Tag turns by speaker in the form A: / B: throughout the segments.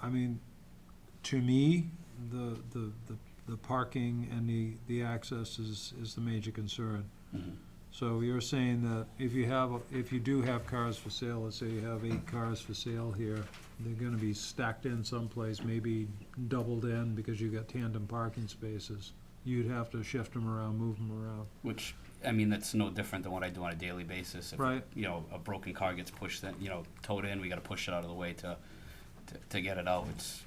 A: I mean, to me, the, the, the, the parking and the, the access is, is the major concern.
B: Mhm.
A: So you're saying that if you have, if you do have cars for sale, let's say you have eight cars for sale here, they're gonna be stacked in someplace, maybe doubled in because you've got tandem parking spaces. You'd have to shift them around, move them around,
B: Which, I mean, that's no different than what I do on a daily basis. If,
A: Right.
B: You know, a broken car gets pushed, then, you know, towed in, we gotta push it out of the way to, to, to get it out. It's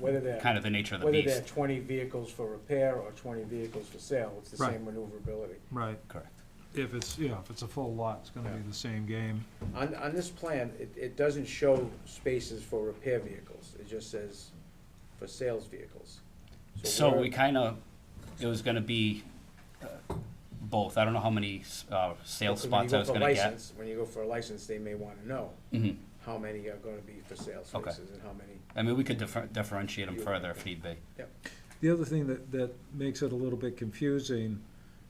C: Whether they're,
B: kind of the nature of the
C: whether they're
B: beast.
C: twenty vehicles for repair or twenty vehicles for sale, it's the
A: Right.
C: same maneuverability.
A: right?
B: Correct.
A: If it's, yeah, if it's a full lot, it's gonna be the same game.
C: On, on this plan, it, it doesn't show spaces for repair vehicles, it just says for sales vehicles.
B: So
C: where-
B: we kinda, it was gonna be uh, both. I don't know how many, uh, sales
C: because when you
B: spots
C: go
B: I was
C: for
B: gonna get.
C: license- When you go for a license, they may wanna know
B: Mhm.
C: how many are gonna be for sales
B: Okay.
C: spaces and how many.
B: I mean, we could differ- differentiate them further if need be.
A: The other thing that, that makes it a little bit confusing,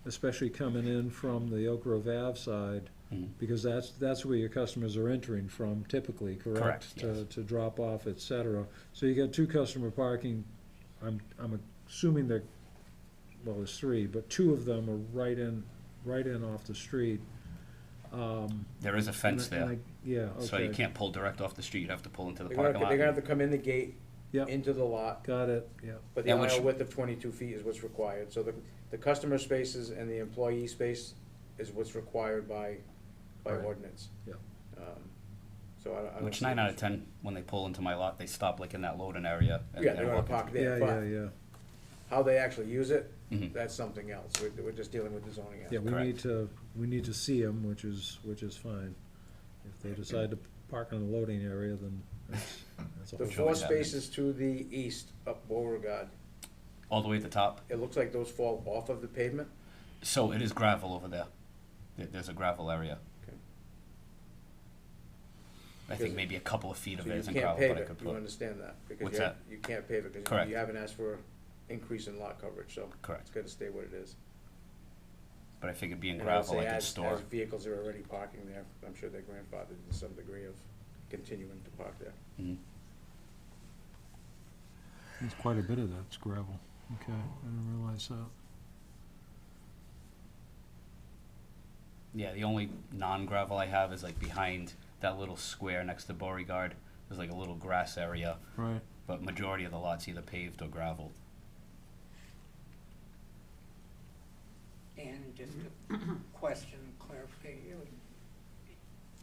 A: especially coming in from the Oak Grove Ave side,
B: Mhm.
C: Mm-hmm.
A: because that's, that's where your customers are entering from typically, correct?
B: Correct,
A: To,
B: yes.
A: to drop off, et cetera. So you got two customer parking, I'm, I'm assuming they're, well, there's three, but two of them are right in, right in off the street. Um,
B: There is a fence
A: and I-
B: there,
A: and I- Yeah, okay.
B: so you can't pull direct off the street. You have to pull into the
C: They're gonna,
B: parking
C: they're gonna have
B: lot.
C: to come in the gate,
A: Yep.
C: into the lot,
A: Got it, yeah.
C: but the
B: And which-
C: aisle width of twenty-two feet is what's required, so the, the customer spaces and the employee space is what's required by, by
A: Right.
C: ordinance.
A: Yep.
C: Um, So I don't, I don't.
B: Which
C: see
B: nine
C: this.
B: out of ten, when they pull into my lot, they stop like in that loading area. and-
C: Yeah,
B: and
C: they're gonna
B: walk into-
C: park
A: Yeah,
C: there,
A: yeah,
C: but
A: yeah.
C: how they actually use it,
B: Mhm.
C: that's something else, we're, we're just dealing with the zoning
A: Yeah,
C: aspect.
A: we
B: Correct.
A: need to, we need to see them, which is, which is fine. If they decide to park in the loading area, then that's, that's a
C: The
A: whole.
B: Showing
C: four
B: that.
C: spaces to the east up Beauregard,
B: All the way at the top.
C: it looks like those fall off of the pavement,
B: So it is gravel over there. There- There's a gravel area.
C: Okay.
B: I
C: Because-
B: think maybe a couple of feet
C: so
B: of it
C: you
B: isn't
C: can't
B: gravel,
C: pave
B: but I
C: it,
B: could
C: you
B: put,
C: understand that?
B: What's
C: Because you, you can't pave it, because
B: Correct.
C: you haven't asked for increase in lot coverage, so
B: correct.
C: it's gonna stay what it is.
B: But I figured being
C: And I would
B: gravel,
C: say
B: I could
C: as-
B: store.
C: As vehicles are already parking there, I'm sure they're grandfathered to some degree of continuing to park there.
B: Mhm.
A: There's quite a bit of that's gravel. Okay, I didn't realize that.
B: Yeah, the only non-gravel I have is like behind that little square next to Beauregard. There's like a little grass area,
A: Right.
B: but majority of the lots either paved or gravel.
D: And just a question, clarification.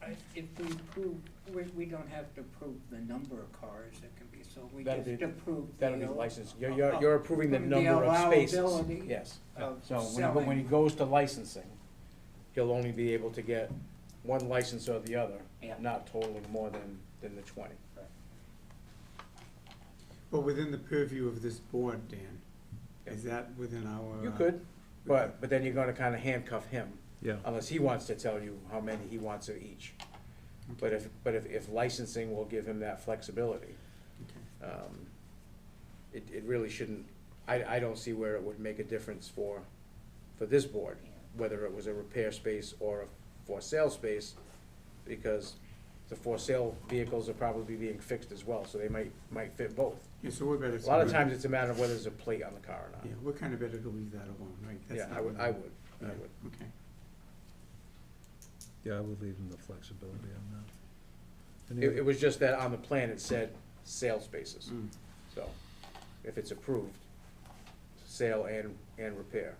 D: I- If we approve, we, we don't have to approve the number of cars that can be sold, we
C: That'd
D: just
C: be-
D: approve the.
C: That'll be licensed, you're,
D: uh,
C: you're, you're approving the
D: the
C: number of spaces,
D: allowability
C: yes.
D: of
C: So when, he go- when he
D: selling.
C: goes to licensing, he'll only be able to get one license or the other,
D: Yeah.
C: not totaling more than, than the twenty.
E: Well, within the purview of this board, Dan,
C: Yeah.
E: is that within our?
C: You
E: uh,
C: could, but, but then you're gonna kinda handcuff him,
A: Yeah,
C: unless he wants to tell you how many he wants of each. But if, but if, if licensing will give him that flexibility,
E: Okay.
C: um, it, it really shouldn't, I, I don't see where it would make a difference for, for this board, whether it was a repair space or a for sale space, because the for sale vehicles are probably being fixed as well, so they might, might fit both.
E: Yeah, so we're better.
C: A lot of times, it's a matter of whether there's a plate on the car or
E: Yeah,
C: not.
E: we're kind of better to leave that alone, right? That's
C: Yeah, I
E: not
C: would,
E: really-
C: I would, I
E: Yeah,
C: would.
E: Okay.
A: yeah, I would leave them the flexibility on that. Any
C: It, it
A: other-
C: was just that on the plan, it said sale spaces,
E: Mm.
C: so if it's approved, sale and, and repair,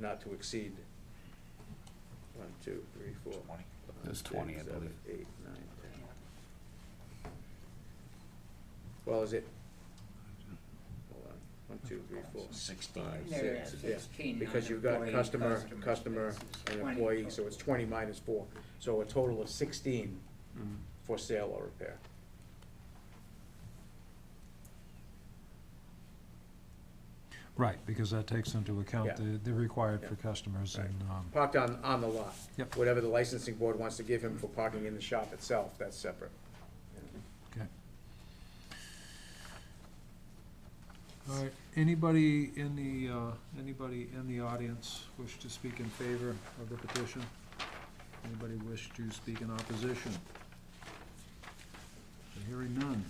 C: not to exceed one, two, three, four. five,
B: There's 20, I
C: six, seven,
B: believe.
C: eight, nine, 10. Well, is it? Hold on, one, two, three, four, five,
D: There it
C: six,
D: is,
C: yeah.
D: sixteen.
C: Because you've got
D: non-employee
C: customer,
D: customers,
C: customer,
D: that's
C: and
D: 20
C: employee, so
D: total.
C: it's twenty minus four, so a total of sixteen
E: Mm.
C: for sale or repair.
A: Right, because that takes into account
C: Yeah.
A: the, the required for
C: Yeah.
A: customers
C: Right.
A: and, um,
C: Parked on, on the lot.
A: Yep.
C: Whatever the licensing board wants to give him for parking in the shop itself, that's separate.
A: okay. All right, anybody in the, uh, anybody in the audience wish to speak in favor of the petition? Anybody wish to speak in opposition? Hearing none.